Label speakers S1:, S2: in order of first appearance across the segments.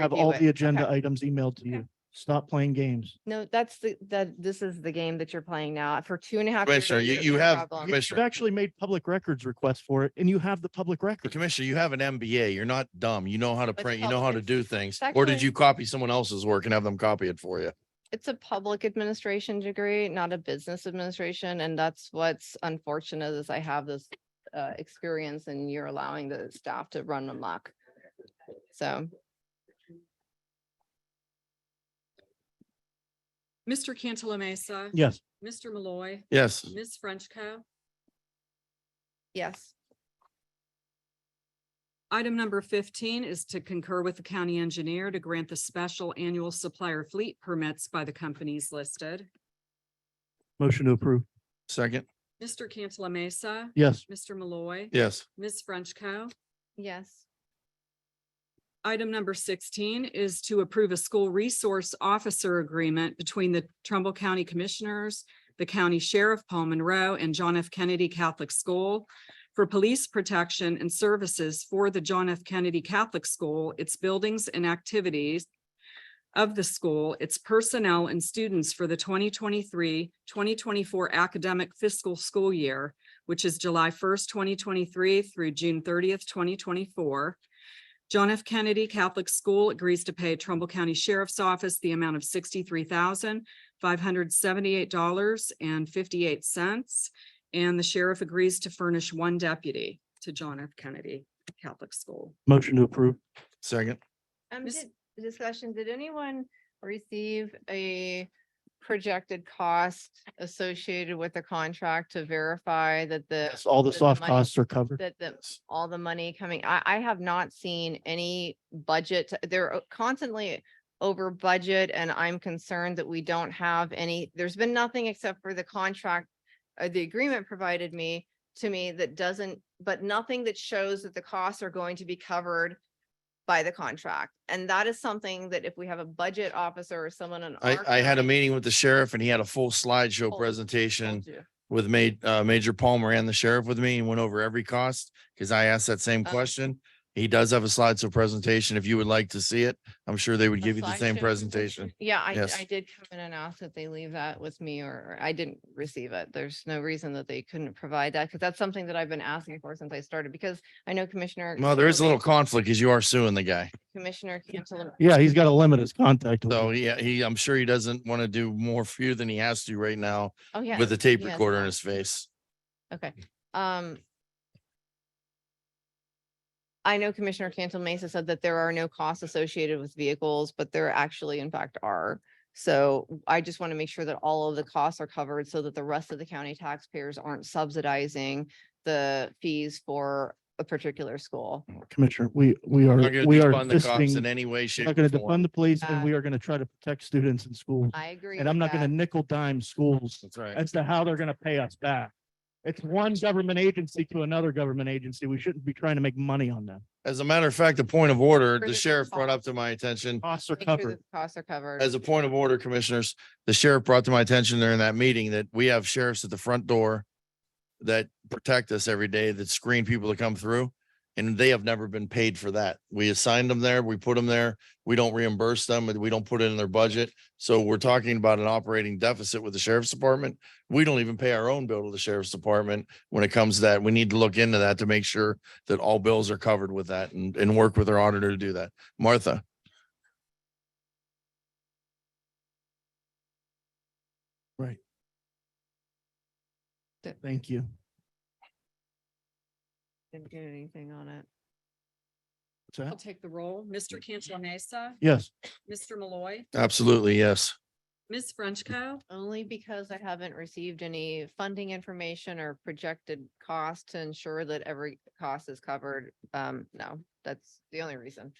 S1: have
S2: review
S1: all
S2: it.
S1: the agenda
S2: Okay.
S1: items emailed to
S2: Okay.
S1: you. Stop playing games.
S2: No, that's the, that, this is the game that you're playing now for two and a half. years,
S3: Commissioner, you,
S2: it's
S3: you
S2: no
S3: have,
S2: problem.
S1: You've
S3: Commissioner,
S1: actually made public records requests for it and you have the public record.
S3: Commissioner, you have an MBA. You're not dumb. You know how to
S2: It's
S3: print, you know how to
S2: public.
S3: do things. Or did
S2: actually-
S3: you copy someone else's work and have them copy it for you?
S2: It's a public administration degree, not a business administration, and that's what's unfortunate is I have this uh, experience and you're allowing the staff to run amok. So
S4: Mr. Cantala Mesa.
S1: Yes.
S4: Mr. Malloy.
S3: Yes.
S4: Ms. Frenchco.
S2: yes,
S4: Item number fifteen is to concur with the county engineer to grant the special annual supplier fleet permits by the companies listed.
S1: Motion to approve.
S3: Second?
S4: Mr. Cantala Mesa.
S1: Yes.
S4: Mr. Malloy.
S3: Yes.
S4: Ms. Frenchco.
S2: yes,
S4: Item number sixteen is to approve a school resource officer agreement between the Trumbull County Commissioners, the County Sheriff Paul Monroe, and John F. Kennedy Catholic School for police protection and services for the John F. Kennedy Catholic School, its buildings and activities of the school, its personnel and students for the 2023-2024 academic fiscal school year, which is July first, twenty twenty-three through June thirtieth, twenty twenty-four. John F. Kennedy Catholic School agrees to pay Trumbull County Sheriff's Office the amount of sixty-three thousand five hundred seventy-eight dollars and fifty-eight cents. And the sheriff agrees to furnish one deputy to John F. Kennedy Catholic School.
S1: Motion to approve.
S3: Second?
S2: um,
S4: Miss-
S2: did, discussion, did anyone receive a projected cost associated with the contract to verify that the
S1: Yes, all the
S2: the
S1: soft
S2: money
S1: costs are covered.
S2: that the, all the money coming, I, I have not seen any budget, they're o- constantly over budget and I'm concerned that we don't have any, there's been nothing except for the contract, uh, the agreement provided me, to me, that doesn't, but nothing that shows that the costs are going to be covered by the contract. And that is something that if we have a budget officer or someone in.
S3: I,
S2: our
S3: I had a
S2: county-
S3: meeting with the sheriff and he had a full slideshow
S2: Told-
S3: presentation
S2: told you.
S3: with ma- uh, Major Palmer and the sheriff with me and went over every cost. Cause I asked that same
S2: Oh.
S3: question. He does have a slideshow presentation. If you would like to see it, I'm sure they would
S2: A
S3: give you the same
S2: slideshow
S3: presentation.
S2: Yeah, I,
S3: Yes.
S2: I did come in and ask that they leave that with me or or I didn't receive it. There's no reason that they couldn't provide that because that's something that I've been asking for since I started because I know Commissioner.
S3: Well, there is a
S2: Cantala-
S3: little conflict because you are suing the guy.
S2: Commissioner Cantala.
S1: Yeah, he's got to limit his contact.
S3: So
S2: Mm-hmm.
S1: order.
S3: yeah, he, I'm sure he doesn't want to do more for you than he has to right now.
S2: Oh, yeah.
S3: with a tape
S2: he has
S3: recorder in
S2: that.
S3: his face.
S2: Okay, um. I know Commissioner Cantal Mesa said that there are no costs associated with vehicles, but there actually in fact are. So I just want to make sure that all of the costs are covered so that the rest of the county taxpayers aren't subsidizing the fees for a particular school.
S1: Commissioner, we, we are,
S3: Not gonna
S1: we are
S3: defund the cops in
S1: fisting,
S3: any way,
S1: not
S3: shape
S1: going
S3: or
S1: to defund
S3: form.
S1: the police and
S2: Uh,
S1: we are going to try to protect students in schools.
S2: I agree.
S1: And I'm
S2: with
S1: not going
S2: that.
S1: to nickel dime schools
S3: That's right.
S1: as to how they're going to pay us back. It's one government agency to another government agency. We shouldn't be trying to make money on them.
S3: As a matter of fact, a point of order,
S2: Further
S3: the sheriff brought up
S2: costs.
S3: to my attention,
S1: Costs are
S2: Make sure
S1: covered.
S2: that the Costs are covered.
S3: as a point of order, commissioners, the sheriff brought to my attention during that meeting that we have sheriffs at the front door that protect us every day, that screen people to come through, and they have never been paid for that. We assigned them there, we put them there, we don't reimburse them, and we don't put it in their budget. So we're talking about an operating deficit with the sheriff's department. We don't even pay our own bill to the sheriff's department when it comes to that. We need to look into that to make sure that all bills are covered with that and, and work with our auditor to do that. Martha?
S1: Thank you.
S2: Didn't get anything on it.
S1: What's that?
S4: I'll take the roll. Mr. Cantala Mesa,
S1: Yes.
S4: Mr. Malloy,
S3: Absolutely, yes.
S4: Ms. Frenchco.
S2: Only because I haven't received any funding information or projected cost to ensure that every cost is covered. Um, no, that's the only reason.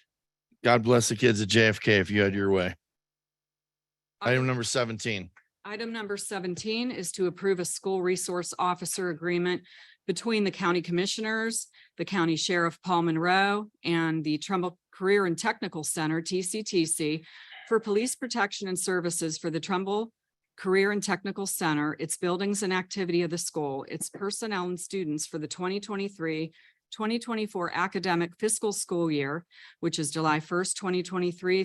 S3: God bless the kids at JFK if you had your way. Item number seventeen.
S4: Item number seventeen is to approve a school resource officer agreement between the county commissioners, the county sheriff Paul Monroe, and the Trumbull Career and Technical Center, TCTC, for police protection and services for the Trumbull Career and Technical Center, its buildings and activity of the school, its personnel and students for the 2023-2024 twenty twenty-four academic fiscal school year, which is July first, twenty twenty-three